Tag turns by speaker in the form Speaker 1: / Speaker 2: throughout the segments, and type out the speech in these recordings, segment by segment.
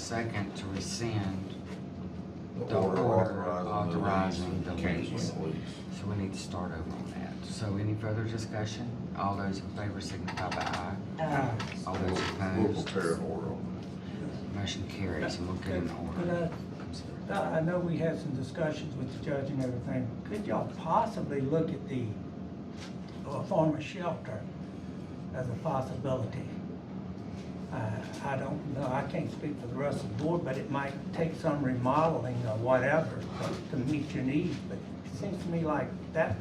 Speaker 1: second to rescind,
Speaker 2: The
Speaker 1: The
Speaker 2: order
Speaker 1: order authorizing
Speaker 2: authorizing the
Speaker 1: the
Speaker 2: lease and
Speaker 1: lease.
Speaker 2: canceling the lease.
Speaker 1: so we need to start over on that. So any further discussion? All those in favor signify by aye.
Speaker 3: Uh,
Speaker 1: All
Speaker 2: We'll-
Speaker 1: those
Speaker 2: We'll
Speaker 1: opposed,
Speaker 2: prepare an order on
Speaker 1: motion carries and we'll get an order. I'm sorry.
Speaker 3: I I know we had some discussions with the judge and everything. Could y'all possibly look at the uh, former shelter as a possibility? Uh, I don't know, I can't speak for the rest of the board, but it might take some remodeling or whatever to meet your needs, but it seems to me like that,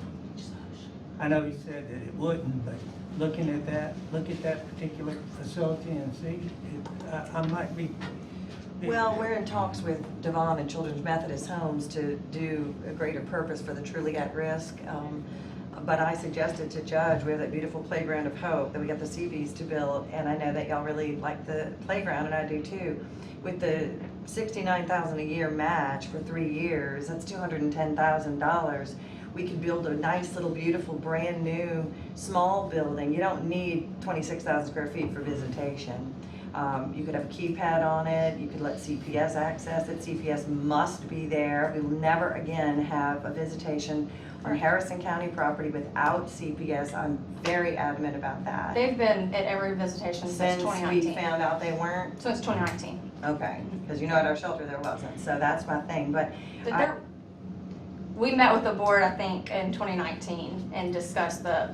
Speaker 3: I know you said that it wouldn't, but looking at that, look at that particular facility and see, it- I- I might be.
Speaker 4: Well, we're in talks with Devon and Children's Methodist Homes to do a greater purpose for the truly at risk. Um, But I suggested to Judge, we have that beautiful playground of hope that we got the CVs to build, and I know that y'all really like the playground, and I do too. With the sixty-nine thousand a year match for three years, that's two hundred and ten thousand dollars. We could build a nice little beautiful, brand-new, small building. You don't need twenty-six thousand square feet for visitation. Um, You could have a keypad on it, you could let CPS access it, CPS must be there. We will never again have a visitation on Harrison County property without CPS. I'm very adamant about that.
Speaker 5: They've been at every visitation since
Speaker 4: Since we
Speaker 5: 2019.
Speaker 4: found out they weren't,
Speaker 5: Since 2019.
Speaker 4: okay, because you know at our shelter there wasn't, so that's my thing, but
Speaker 5: But
Speaker 4: I-
Speaker 5: there- We met with the board, I think, in 2019 and discussed the,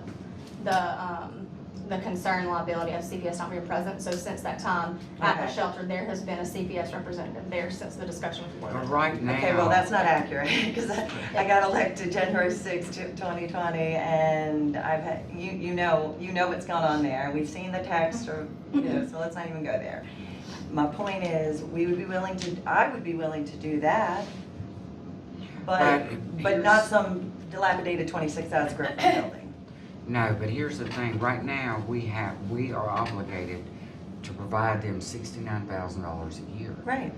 Speaker 5: the, um, the concern liability of CPS not being present. So since that time, at the
Speaker 4: Okay.
Speaker 5: shelter, there has been a CPS representative there since the discussion. was
Speaker 1: But
Speaker 5: board.
Speaker 1: right now.
Speaker 4: Okay, well, that's not accurate, because I I got elected January sixth, twenty twenty, and I've had, you, you know, you know what's gone on there, we've seen the text, or, you know, so let's not even go there. My point is, we would be willing to, I would be willing to do that, but,
Speaker 1: But
Speaker 4: but not
Speaker 1: here's-
Speaker 4: some dilapidated twenty-six thousand square foot building.
Speaker 1: No, but here's the thing, right now, we have, we are obligated to provide them sixty-nine thousand dollars a year
Speaker 4: Right,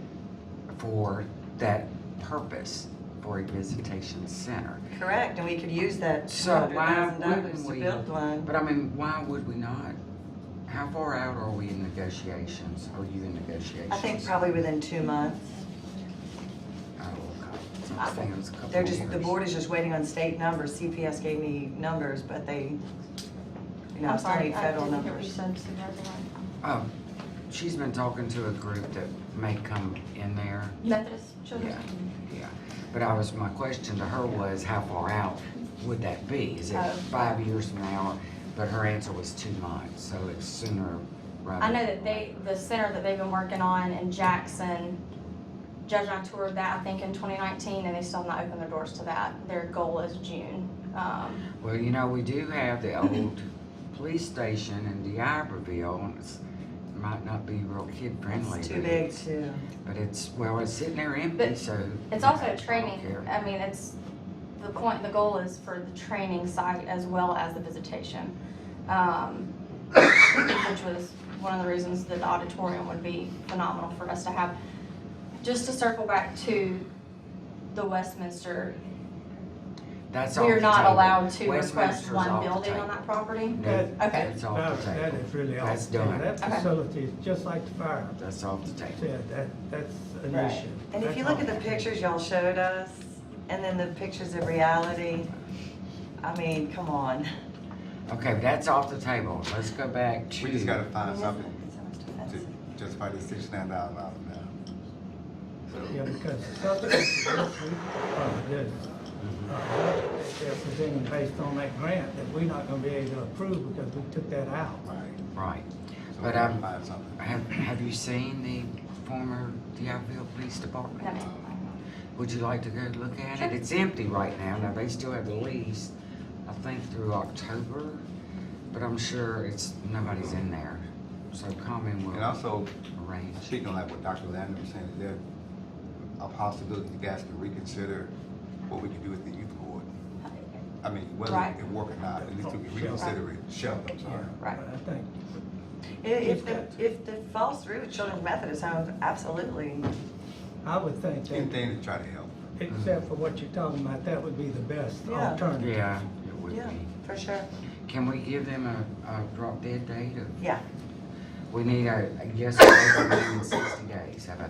Speaker 1: for that purpose, for a visitation center.
Speaker 4: correct, and we could use that two
Speaker 1: So
Speaker 4: hundred
Speaker 1: why
Speaker 4: thousand dollars
Speaker 1: wouldn't
Speaker 4: to
Speaker 1: we?
Speaker 4: build one.
Speaker 1: But I mean, why would we not? How far out are we in negotiations? Are you in negotiations?
Speaker 4: I think probably within two months.
Speaker 1: Oh, okay. So I was thinking it was a couple
Speaker 4: They're just, the
Speaker 1: years.
Speaker 4: board is just waiting on state numbers, CPS gave me numbers, but they, you know,
Speaker 5: I'm
Speaker 4: it's not
Speaker 5: sorry,
Speaker 4: any
Speaker 5: I
Speaker 4: federal
Speaker 5: didn't hear what you
Speaker 4: numbers.
Speaker 5: said, Supervisor White.
Speaker 1: Oh, she's been talking to a group that may come in there.
Speaker 5: Methodist Children's.
Speaker 1: Yeah, yeah. But I was, my question to her was, how far out would that be? Is it
Speaker 5: Oh.
Speaker 1: five years from now? But her answer was two months, so it's sooner rather.
Speaker 5: I know that they, the center that they've been working on in Jackson, Judge and I toured that, I think, in twenty nineteen, and they still have not opened their doors to that. Their goal is June. Um,
Speaker 1: Well, you know, we do have the old police station in DeIberville, and it's, might not be real kid friendly.
Speaker 4: It's too
Speaker 1: but
Speaker 4: big
Speaker 1: it's-
Speaker 4: to,
Speaker 1: But it's, well, it's sitting there empty,
Speaker 5: But
Speaker 1: so.
Speaker 5: It's
Speaker 1: I
Speaker 5: also a
Speaker 1: don't
Speaker 5: training,
Speaker 1: care.
Speaker 5: I mean, it's, the point, the goal is for the training site as well as the visitation. um, Which was one of the reasons that the auditorium would be phenomenal for us to have. Just to circle back to the Westminster
Speaker 1: That's
Speaker 5: We
Speaker 1: off
Speaker 5: are
Speaker 1: the
Speaker 5: not
Speaker 1: table.
Speaker 5: allowed to request
Speaker 1: Westminster's
Speaker 5: one
Speaker 1: off the
Speaker 5: building on
Speaker 1: table.
Speaker 5: that property?
Speaker 1: No,
Speaker 5: Okay.
Speaker 1: That's off the
Speaker 3: Oh, That
Speaker 1: table.
Speaker 3: is really off.
Speaker 1: That's
Speaker 3: the table.
Speaker 1: done.
Speaker 3: That
Speaker 5: Okay.
Speaker 3: facility is just like the fire
Speaker 1: That's off the table.
Speaker 3: said, that, that's an
Speaker 4: right.
Speaker 3: issue.
Speaker 4: And if
Speaker 3: That's
Speaker 4: you look
Speaker 3: all.
Speaker 4: at the pictures y'all showed us, and then the pictures of reality, I mean, come on.
Speaker 1: Okay, but that's off the table. Let's go back to.
Speaker 6: We just gotta find
Speaker 4: It's
Speaker 6: something
Speaker 4: so much defense.
Speaker 6: to justify the sixty-nine thousand dollars now.
Speaker 3: Yeah, because subsidies are good. oh,
Speaker 1: Mm-hmm.
Speaker 3: Uh, They're presenting based on that grant that we're not gonna be able to approve because we took that out.
Speaker 6: Right.
Speaker 1: Right.
Speaker 6: So we
Speaker 1: But,
Speaker 6: gotta
Speaker 1: um,
Speaker 6: find something.
Speaker 1: have, have you seen the former DeIberville Police Department?
Speaker 5: No, ma'am.
Speaker 1: Would you like to go look at
Speaker 5: Sure.
Speaker 1: it? It's empty right now. Now, they still have the lease, I think through October, but I'm sure it's, nobody's in there. So Common
Speaker 6: And
Speaker 1: will
Speaker 6: also,
Speaker 1: arrange.
Speaker 6: speaking like what Dr. Landon was saying, is there a possibility you guys can reconsider what we can do with the youth board? I mean, whether
Speaker 5: Right.
Speaker 6: it work or not, at least we can reconsider it, shelter, I'm sorry.
Speaker 5: Right.
Speaker 3: Uh, But I think,
Speaker 4: If, if the, if the falls through with Children's Methodist Homes, absolutely.
Speaker 3: I would think that,
Speaker 6: Anything to try to help.
Speaker 3: except for what you're talking about, that would be the best
Speaker 4: Yeah.
Speaker 3: alternative.
Speaker 1: Yeah, it would
Speaker 4: Yeah,
Speaker 1: be.
Speaker 4: for sure.
Speaker 1: Can we give them a, a drop dead date? of-
Speaker 4: Yeah.
Speaker 1: We need a, a yes or no within sixty days. How about